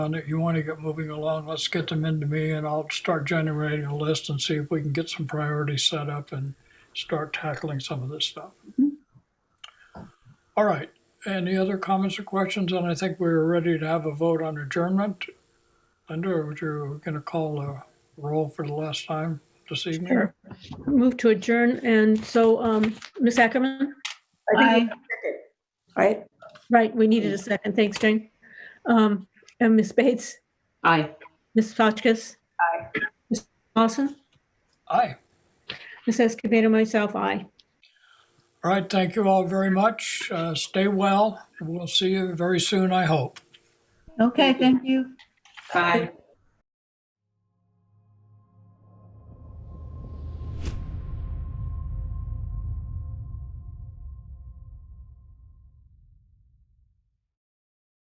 on that you want to get moving along, let's get them into me and I'll start generating a list and see if we can get some priorities set up and start tackling some of this stuff. All right, any other comments or questions? And I think we're ready to have a vote on adjournment. Linda, would you going to call a roll for the last time this evening? Sure. Move to adjourn. And so, um, Ms. Ackerman, I Aye. think you- Right? right, we needed a second. Thanks, Jane. Um, and Ms. Bates, Aye. Ms. Hotchkiss. Aye. Ms. Lawson, Aye. Ms. Escobedo, myself, aye. All right, thank you all very much. Uh, Stay well. We'll see you very soon, I hope. Okay, thank you. Bye.